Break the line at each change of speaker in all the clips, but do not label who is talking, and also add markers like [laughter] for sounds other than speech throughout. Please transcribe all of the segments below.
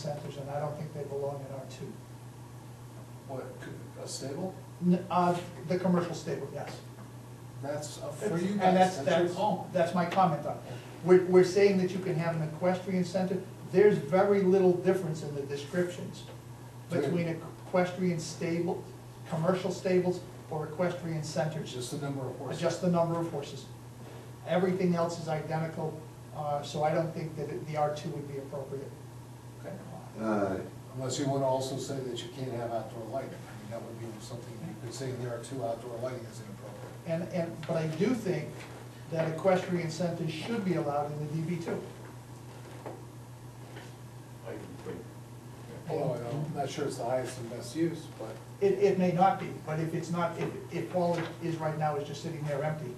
centers, and I don't think they belong in R two.
What, a stable?
N- Uh, the commercial stable, yes.
That's up for you
And that's,
guys, that's your
that's,
call.
that's my comment on it. We're, we're saying that you can have an equestrian center, there's very little difference in the descriptions between equestrian stable, commercial stables or equestrian
It's
centers,
just the number of horses.
just the number of horses. Everything else is identical, uh, so I don't think that it- the R two would be appropriate.
Okay.
Uh,
Unless you want to also say that you can't have outdoor lighting. I mean, that would be something you could say there are two outdoor lighting is inappropriate.
And, and, but I do think that equestrian centers should be allowed in the DB two.
I can think.
Although I'm not sure it's the highest and best use, but
It, it may not be, but if it's not, if, if all it is right now is just sitting there empty,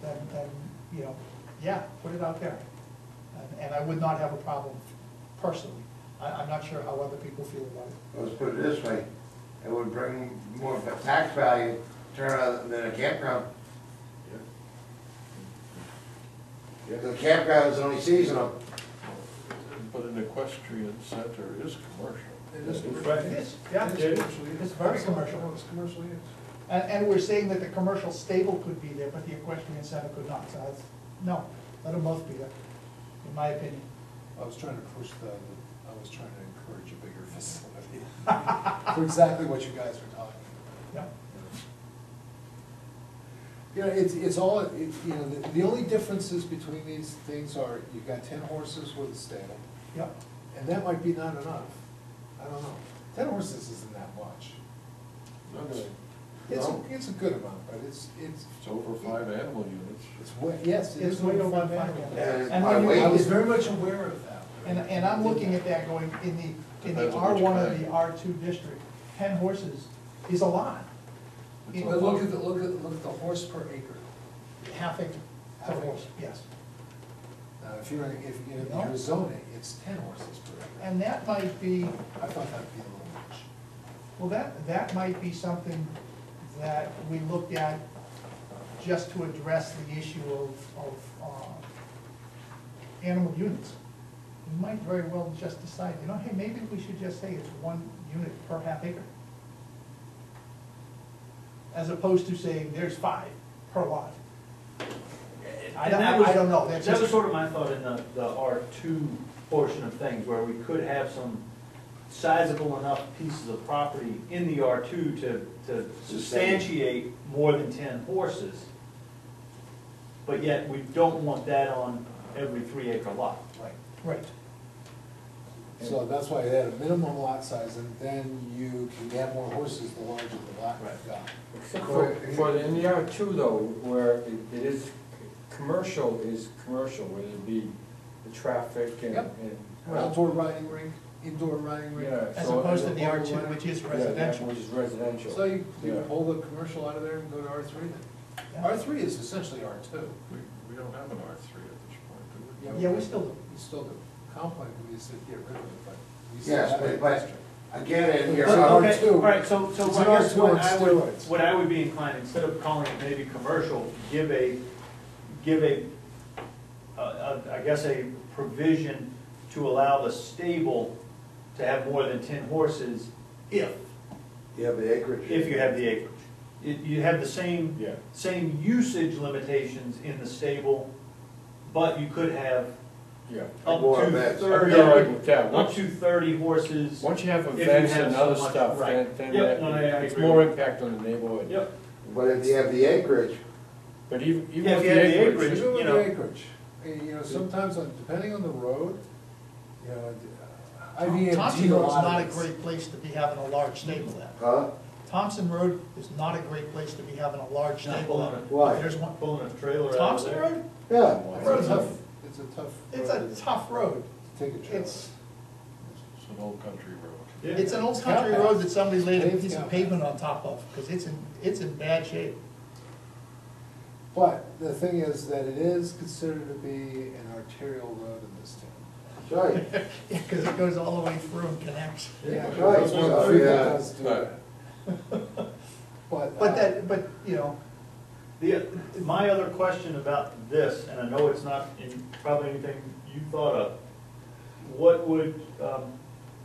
then, then, you know, yeah, put it out there. And, and I would not have a problem personally. I, I'm not sure how other people feel about it.
let's put it this way, it would bring more of a tax value, turn out than a campground.
Yeah.
The campground is only seasonal.
But an equestrian center is commercial.
it is.
It is, yeah. And,
It is commercial use.
It's very commercial.
It's commercial use.
and we're saying that the commercial stable could be there, but the equestrian center could not, so that's, no, let them both be there, in my opinion.
I was trying to push the, I was trying to encourage a bigger [laughs] facility for exactly what you guys were talking about.
Yeah.
You know, it's, it's all, it, you know, the, the only differences between these things are, you've got ten horses with a stable,
Yeah.
and that might be not enough. I don't know. Ten horses isn't that much.
No, no,
It's,
No.
it's a good amount, but it's, it's,
It's over five animal units.
it's way, yes, it
It's
is.
way
over
over
five
five,
animals.
yeah.
And
And
by
when you-
weight-
I was very much aware of that.
And, and I'm looking at that going, in the, in the
Depends on
R
which
one or
kind.
the R two district, ten horses is a lot.
It's a
But look
lot.
at the, look at, look at the horse per acre.
Half acre, per
Half acre.
horse, yes.
Now, if you're, if you're in
No.
Arizona, it's ten horses per acre.
And that might be,
I thought that'd be a little much.
well, that, that might be something that we look at just to address the issue of, of, uh, animal units. We might very well just decide, you know, hey, maybe we should just say it's one unit per half acre. As opposed to saying there's five per lot. I don't-
And that was-
I don't know, that's
That was
just-
sort of my thought in the, the R two portion of things, where we could have some sizable enough pieces of property in the R two to, to substantiate more than ten horses. But yet, we don't want that on every three acre lot.
Right.
Right.
So that's why they had a minimum lot size, and then you can add more horses the larger the lot you've got.
Except for, for in the E R two though, where it it is, commercial is commercial, whether it be the traffic and,
Yep.
and.
Outdoor riding rink, indoor riding rink.
Yeah,
As
so-
opposed to the R
Yeah.
two, which is
Yeah,
residential.
Which is residential.
So you, you
Yeah.
pull the commercial out of there and go to R three then?
Yeah.
R three is essentially R two.
We, we don't have an R three at this point, do we?
Yeah.
Yeah, we still do.
You still do. Compline, we used to get rid of it, but. we still
Yes,
have
but,
it.
but again, in your,
It's an R2.
Okay, All right, so, so
It's
I
an
guess
R2
what
on
I would,
steroids.
what I would be inclined, instead of calling it maybe commercial, give a, give a, a- a- I guess a provision to allow the stable to have more than ten horses if,
you have the acreage.
if you have the acreage. You, you have the same,
Yeah.
same usage limitations in the stable, but you could have
Yeah.
up
More
to
events.
thirty,
Yeah, like, yeah,
up
once-
to thirty horses.
Once you have
If you
events
have
and
so
other
much,
stuff, then,
right.
then
Yep,
that-
no, I- I
it's
agree
more
with you.
impact on the neighborhood.
Yep.
But if you have the acreage,
But even, even
Yeah, if
with
you had
the
the
acreage,
acreage,
Even with
you know.
the acreage, Uh, you know, sometimes, on- depending on the road, you know, I
Thompson
VMT a
Road's not
lot
a
of this.
great place to be having a large stable at.
huh?
Thompson Road is not a great place to be having a large
Not
stable
pulling
at.
it.
Why?
There's one,
Pulling a trailer out of
Thompson
there.
Road?
Yeah.
It's a tough, it's a tough.
It's
road
a
to-
tough road.
to Take a trailer.
It's,
It's an old country road.
Yeah.
it's an old country road that somebody laid a piece of
Yeah.
pavement on top of, because it's in, it's in bad shape. [laughs]
But the thing is that it is considered to be an arterial road in this town.
That's right.
Because it goes all the way through and connects.
Yeah,
right.
that's one of the few that
Yeah.
does do that. But. uh,
But that, but, you know,
The, my other question about this, and I know it's not in, probably anything you thought of, what would, um,